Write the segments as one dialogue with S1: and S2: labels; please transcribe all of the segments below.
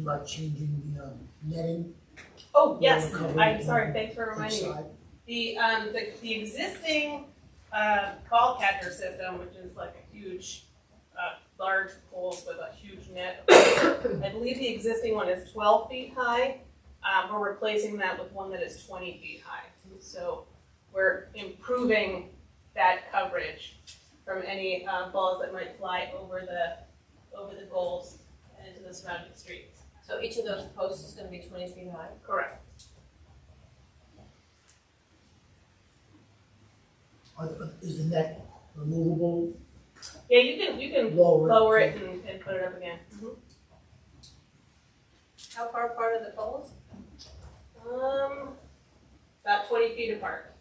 S1: about changing the, um, netting
S2: Oh, yes,
S1: Cover
S2: I'm
S1: it.
S2: sorry, thanks for reminding me.
S1: inside?
S2: The, um, the, the existing, uh, ball catcher system, which is like a huge, uh, large poles with a huge net. I believe the existing one is twelve feet high, um, we're replacing that with one that is twenty feet high. So we're improving that coverage from any, uh, balls that might fly over the, over the goals and into the surrounding streets.
S3: So each of those posts is gonna be twenty feet high?
S2: Correct.
S1: Are- are- Is the net removable,
S2: Yeah, you can, you can
S1: lower?
S2: lower it and, and put it up again.
S3: How far apart are the poles?
S2: Um, about twenty feet apart.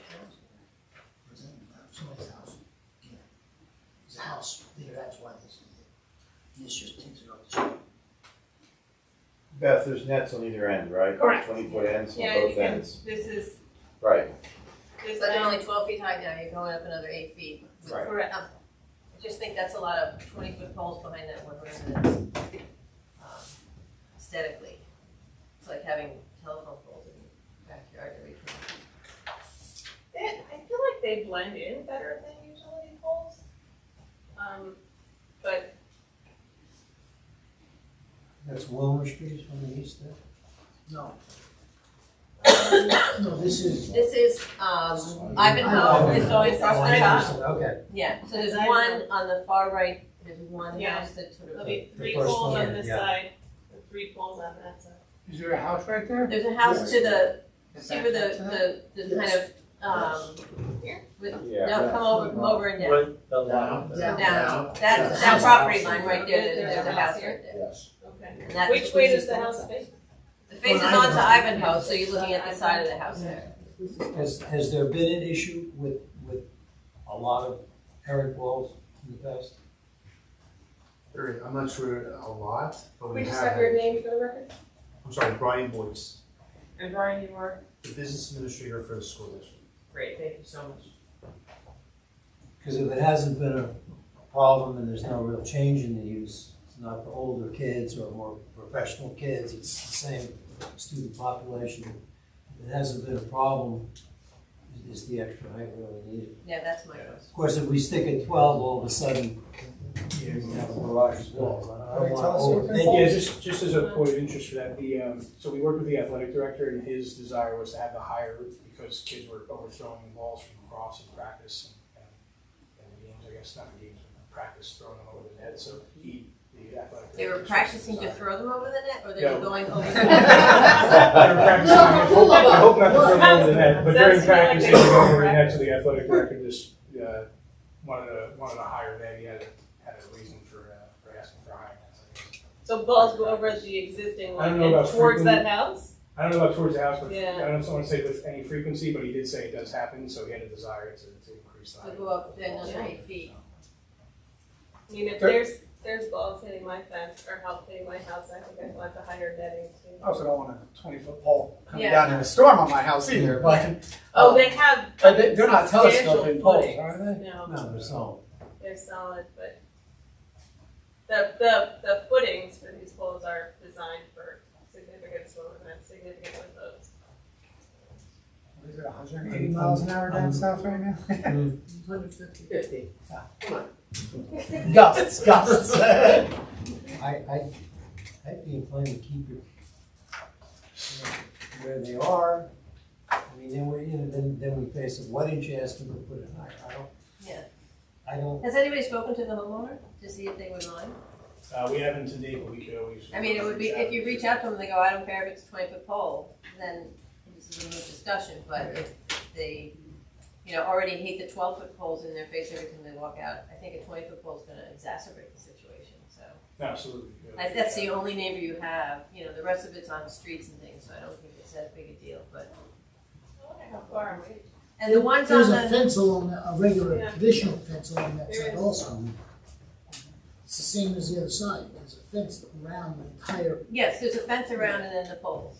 S1: Or is that Somebody's house. Yeah. There's a house there, that's why this is there. And This just takes it off the street.
S4: Beth, there's nets on either end, right?
S2: Correct.
S4: Twenty foot ends on
S2: Yeah, you
S4: both
S2: can-
S4: ends.
S2: This is,
S4: Right,
S2: this
S3: But they're
S2: is,
S3: only twelve feet high now, you're going up another eight feet. with-
S4: Right.
S2: Correct.
S3: Um, I just think that's a lot of twenty foot poles behind that one residence. um, Aesthetically, it's like having telephone poles in your backyard every twenty.
S2: they- I feel like they blend in better than utility poles. Um, but
S5: That's Wilmer Street on the east there?
S1: No,
S3: feet. Um,
S1: no, this is,
S3: This is, um, Ivanhoe,
S5: Ivanhoe.
S3: it's going across the top.
S5: Okay,
S3: Yeah, so there's
S2: Design.
S3: one on the far right, there's one
S2: Yeah.
S3: house that sort
S2: there'll
S3: of,
S2: be three
S5: The first
S2: poles
S5: one,
S2: on this
S5: yeah.
S2: side, and three poles on that side.
S6: Is there a house right there?
S3: there's a house to the,
S6: Is
S3: see
S6: that-
S3: where
S6: that's it?
S3: the, the, the kind of, um, with,
S4: yeah.
S3: no, come over, come over and down.
S7: With the line.
S3: Down,
S1: Down.
S3: that, that
S1: Yes.
S3: property line right there, there's
S2: There's
S3: a
S2: a
S3: house
S2: house
S3: right there.
S7: Yes.
S2: Okay.
S3: And that
S2: Which way does
S3: faces-
S2: the house face?
S3: The faces
S1: Ivanhoe.
S3: onto Ivanhoe, so you're looking at the side of the house there.
S5: has, has there been an issue with, with a lot of errant walls in the past?
S6: There is- I'm not sure a lot, but we
S8: We
S6: have.
S8: just have your name for the record.
S6: I'm sorry, Brian Boyce,
S8: And Brian, you are.
S6: the business administrator for the school district.
S8: Great, thank you so much.
S5: Because if it hasn't been a problem and there's no real change in the use, it's not for older kids or more professional kids, it's the same student population. If it hasn't been a problem, is the extra height really needed?
S3: Yeah, that's my house.
S5: Of course, if we stick at twelve, all of a sudden, you have a garage wall. I don't want to
S9: Yeah,
S5: overthink it.
S9: just, just as a point of interest for that, the, um, so we worked with the athletic director and his desire was to have the higher roof because kids were overthrowing balls from across in practice and, and and games, I guess, not in games, but practice, throwing them over the net, so he, the athletic.
S3: They were
S9: director,
S3: practicing to
S9: desire.
S3: throw them over the net, or they were
S9: No.
S3: going over the
S9: They were practicing, I hope not, I hope not to throw them over the net, but during
S2: That's not
S9: practice, they
S2: like
S9: were
S2: a-
S9: going over the net, so the athletic director just, uh, wanted a, wanted a higher net, he had a, had a reason for, uh, for asking for higher nets, I guess.
S2: So balls go over the existing
S9: I
S2: one
S9: don't know
S2: and
S9: about
S2: towards
S9: frequently.
S2: that house?
S9: I don't know about towards the house, but
S2: Yeah.
S9: I don't want to say with any frequency, but he did say it does happen, so he had a desire to, to increase the
S3: To
S9: height.
S3: go up to another eight feet.
S2: I mean, if
S9: There-
S2: there's, there's balls hitting my fence or help hitting my house, I think I'd want the higher netting too.
S6: I also don't want a twenty foot pole coming
S3: Yeah.
S6: down in a storm on my house either, but.
S2: Oh, they have,
S6: But Uh, they, they're not
S2: Substantial
S6: telescoping Oh. poles,
S2: footage.
S6: are they?
S2: no,
S5: No, there's no.
S2: they're solid, but the, the, the footings for these poles are designed for significant swim events, significant wind loads.
S6: What is it, hundred and eighty miles an hour down
S5: Um,
S6: south right now?
S8: Hundred fifty. Fifty.
S6: Gusts, gusts.
S5: I, I, I'd be inclined to keep it you know, where they are. I mean, then we're, you know, then, then we face it, why didn't you ask them to put it higher? I don't.
S3: Yeah.
S5: I don't,
S3: Has anybody spoken to the homeowner to see if they would mind?
S9: Uh, we haven't to date, but we could always.
S3: I mean, it would be, if you reach out to them, and they go, I don't care if it's a twenty foot pole, then this is a moot discussion, but if they, you know, already hate the twelve foot poles in their face every time they walk out, I think a twenty foot pole's gonna exacerbate the situation, so.
S9: Absolutely. we could.
S3: Like, that's the only neighbor you have, you know, the rest of it's on streets and things, so I don't think it's that big a deal, but,
S2: I wonder how far away.
S3: and the ones on
S1: there's a
S3: the,
S1: fence along, that- a regular
S2: Yeah.
S1: traditional fence along that
S2: There
S1: side
S2: is.
S1: also. It's the same as the other side, there's a fence around the entire
S3: yes, there's a fence around and then the poles.